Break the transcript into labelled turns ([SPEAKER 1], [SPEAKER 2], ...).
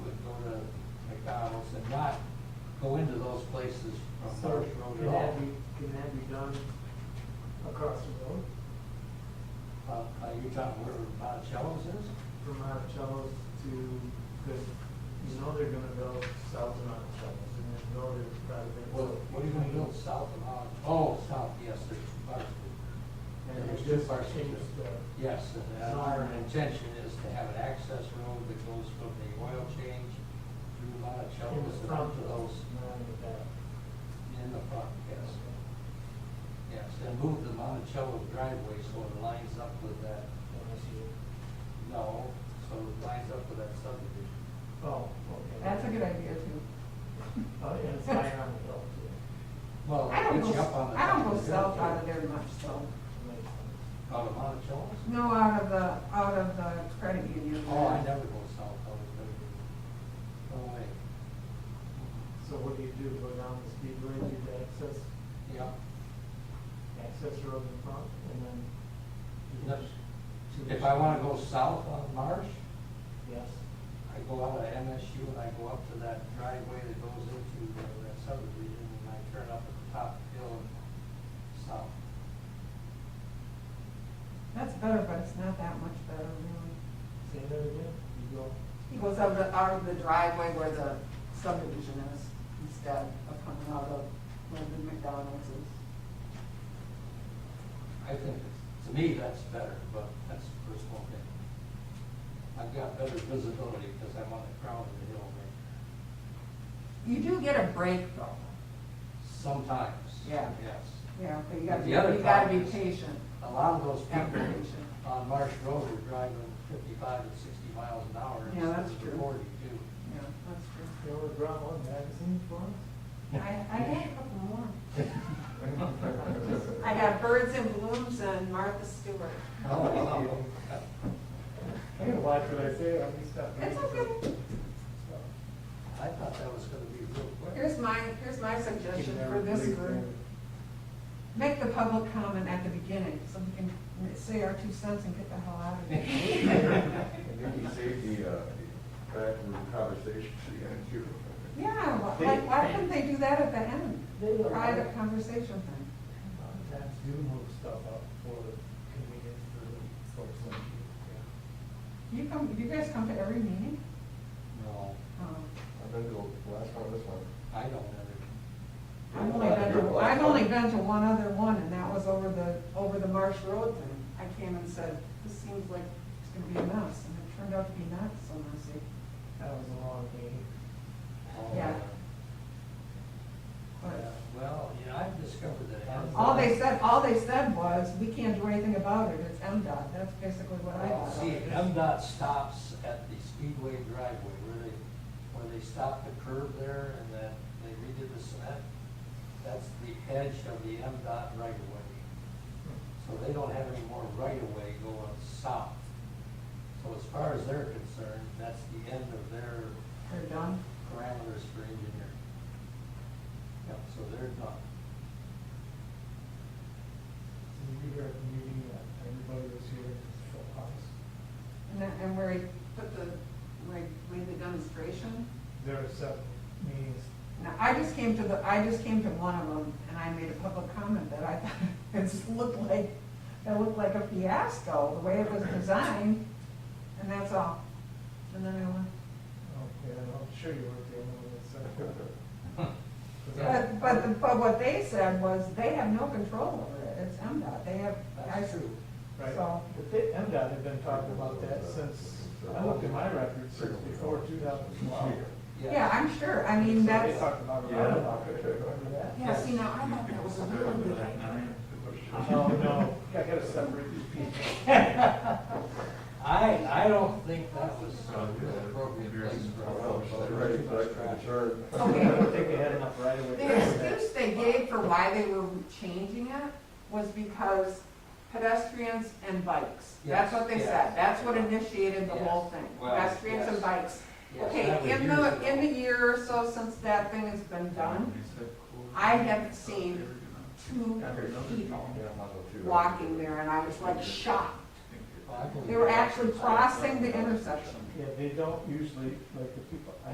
[SPEAKER 1] go into those places from
[SPEAKER 2] So
[SPEAKER 1] Forest Road
[SPEAKER 2] can
[SPEAKER 1] at all.
[SPEAKER 2] that be, can that be done across the road
[SPEAKER 1] Uh, Are you talking where Monticello's is?
[SPEAKER 2] from Monticello's to, because you know they're gonna go south of Monticello's and then go to probably.
[SPEAKER 1] What, what are you gonna build south of Mon, oh, south, yes, there's parts.
[SPEAKER 2] And
[SPEAKER 1] there's
[SPEAKER 2] it
[SPEAKER 1] two
[SPEAKER 2] just
[SPEAKER 1] parts.
[SPEAKER 2] changed the,
[SPEAKER 1] Yes, and uh, our intention is to have an access road that goes from the oil change through
[SPEAKER 2] in
[SPEAKER 1] Monticello's
[SPEAKER 2] the
[SPEAKER 1] and
[SPEAKER 2] front
[SPEAKER 1] up to
[SPEAKER 2] of
[SPEAKER 1] those
[SPEAKER 2] those, not in the back.
[SPEAKER 1] in the front, yes. Yes, and move the Monticello driveway so it lines up with that,
[SPEAKER 2] Unless you-
[SPEAKER 1] no, so it lines up with that subdivision.
[SPEAKER 2] Oh, okay.
[SPEAKER 3] That's a good idea too.
[SPEAKER 2] Oh, yeah, it's higher on the hill too.
[SPEAKER 1] Well,
[SPEAKER 3] I don't
[SPEAKER 1] it gets you up
[SPEAKER 3] go,
[SPEAKER 1] on the.
[SPEAKER 3] I
[SPEAKER 1] top
[SPEAKER 3] don't go
[SPEAKER 1] of the hill,
[SPEAKER 3] south
[SPEAKER 1] too.
[SPEAKER 3] out of there much, so.
[SPEAKER 2] Makes sense.
[SPEAKER 1] Out of Monticello's?
[SPEAKER 3] No, out of the, out of the credit union.
[SPEAKER 1] Oh, I never go south, I was never, no way,
[SPEAKER 2] So what do you do, go down the speedway, do the access,
[SPEAKER 1] yeah,
[SPEAKER 2] access road in front and then? do the-
[SPEAKER 1] Yes. if I wanna go south on Marsh,
[SPEAKER 2] Yes.
[SPEAKER 1] I go out of MSU and I go up to that driveway that goes into uh, that subdivision, and I turn up at the top hill and south.
[SPEAKER 3] That's better, but it's not that much better really.
[SPEAKER 2] Say that again, you go,
[SPEAKER 3] He goes out of, the- out of the driveway where the subdivision is instead of coming out of where the McDonald's is.
[SPEAKER 1] I think, it's- to me, that's better, but that's personal opinion. I've got better visibility because I'm on the crown of the hill, right?
[SPEAKER 3] You do get a break though.
[SPEAKER 1] sometimes.
[SPEAKER 3] Yeah.
[SPEAKER 1] Yes.
[SPEAKER 3] Yeah, but you gotta,
[SPEAKER 1] The
[SPEAKER 3] be-
[SPEAKER 1] other
[SPEAKER 3] you gotta be
[SPEAKER 1] problem is-
[SPEAKER 3] patient.
[SPEAKER 1] A lot of those people
[SPEAKER 3] Application.
[SPEAKER 1] on Marsh Road are driving fifty-five and sixty miles an hour.
[SPEAKER 3] Yeah, that's
[SPEAKER 1] instead of
[SPEAKER 3] true.
[SPEAKER 1] Forty-two.
[SPEAKER 3] Yeah, that's true.
[SPEAKER 2] you ever brought one magazine for us?
[SPEAKER 3] I, I got a couple more. I got Birds in Blooms and Martha Stewart.
[SPEAKER 1] Oh,
[SPEAKER 2] I'm gonna watch what I say, I'll be stuck.
[SPEAKER 3] It's okay.
[SPEAKER 1] I thought that was gonna be real quick.
[SPEAKER 3] Here's my, here's my suggestion for this group. Make the public comment at the beginning, so we can say our two cents and get the hell out of here.
[SPEAKER 4] And then you save the, uh, the backroom conversation to the end too.
[SPEAKER 3] Yeah, wh- like, why couldn't they do that at the end? Private conversation thing.
[SPEAKER 2] Sometimes do move stuff up for convenience for folks like you.
[SPEAKER 3] You come, you guys come to every meeting?
[SPEAKER 1] No,
[SPEAKER 3] Um,
[SPEAKER 4] I've been to the last one, this one.
[SPEAKER 1] I don't ever.
[SPEAKER 3] I've only been to, I've only been to one other one, and that was over the, over the Marsh Road thing. I came and said, this seems like it's gonna be a mess, and it turned out to be not so messy.
[SPEAKER 2] That was a long meeting.
[SPEAKER 1] Oh,
[SPEAKER 3] Yeah.
[SPEAKER 1] yeah.
[SPEAKER 3] But
[SPEAKER 1] Well, you know, I've discovered that. Amazon-
[SPEAKER 3] all they said, all they said was, we can't do anything about it, it's MDOT, that's basically what I
[SPEAKER 1] Well,
[SPEAKER 3] thought.
[SPEAKER 1] Oh, See, MDOT stops at the Speedway driveway where they, where they stop the curb there and then they redid the cement. That's the edge of the MDOT right of way. So they don't have any more right of way going south. So as far as they're concerned, that's the end of their
[SPEAKER 3] They're done?
[SPEAKER 1] parameters for engineering. Yep, so they're done.
[SPEAKER 2] So you were at the meeting that everybody was here in this full house.
[SPEAKER 3] And that, and where he put the, where he made the demonstration?
[SPEAKER 2] There were several meetings.
[SPEAKER 3] Now, I just came to the, I just came to one of them, and I made a public comment that I thought it just looked like, it looked like a fiasco, the way it was designed, and that's all. And then I went,
[SPEAKER 2] Oh, yeah, I'm sure you weren't the only one that said that. 'Cause I-
[SPEAKER 3] but, but, the- but what they said was, they have no control over it, it's MDOT, they have, I,
[SPEAKER 1] That's true.
[SPEAKER 2] Right,
[SPEAKER 3] So-
[SPEAKER 2] but they, MDOT had been talking about that since, I looked at my records since before two thousand twelve.
[SPEAKER 3] yeah, I'm sure, I mean,
[SPEAKER 2] They
[SPEAKER 3] that's,
[SPEAKER 2] talked about it, I don't remember that.
[SPEAKER 3] yeah, see, now, I thought that was a really good idea.
[SPEAKER 2] Oh, no, I gotta separate these people.
[SPEAKER 1] I, I don't think that was
[SPEAKER 4] Yeah.
[SPEAKER 1] an appropriate place for a
[SPEAKER 4] Well,
[SPEAKER 1] vote.
[SPEAKER 4] they're ready for that kind of turn.
[SPEAKER 2] I
[SPEAKER 3] Okay.
[SPEAKER 2] don't think they had enough right away.
[SPEAKER 3] The excuse they gave for why they were changing it was because pedestrians and bikes. That's what they
[SPEAKER 1] Yes,
[SPEAKER 3] said.
[SPEAKER 1] yes.
[SPEAKER 3] That's what initiated the whole
[SPEAKER 1] Yes.
[SPEAKER 3] thing,
[SPEAKER 1] Well,
[SPEAKER 3] pedestrians and
[SPEAKER 1] yes.
[SPEAKER 3] bikes.
[SPEAKER 1] Yes, that was
[SPEAKER 3] Okay, in
[SPEAKER 1] years
[SPEAKER 3] the,
[SPEAKER 1] ago.
[SPEAKER 3] in the year or so since that thing has been done, I haven't seen two people
[SPEAKER 4] Yeah, might as well too.
[SPEAKER 3] walking there, and I was like shocked.
[SPEAKER 1] Well, I believe
[SPEAKER 3] They were
[SPEAKER 1] that.
[SPEAKER 3] actually crossing the intersection.
[SPEAKER 2] Yeah, they don't usually, like, the people,